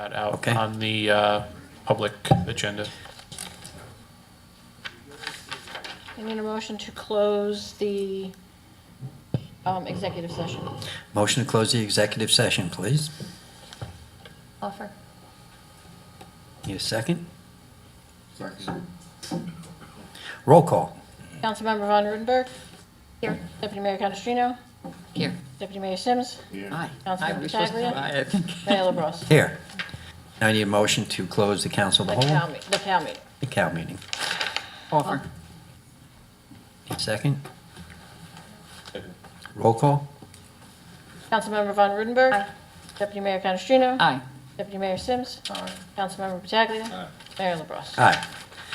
that out Okay. on the uh, public agenda. I need a motion to close the um, executive session. Motion to close the executive session, please. Offer. Need a second? Roll call. Councilmember Von Rudenberg. Here. Deputy Mayor Canestrino. Here. Deputy Mayor Sims. Aye. I Councilmember was just, Pataglia. aye, I think. Mayor LaBrus. Here. Now I need a motion to close the council The of the cow, whole, me- the cow meeting. the cow meeting. Offer. Need a second? Roll call. Councilmember Von Rudenberg. Deputy Mayor Canestrino. Aye. Deputy Mayor Sims. Councilmember Pataglia. Mayor LaBrus. Aye.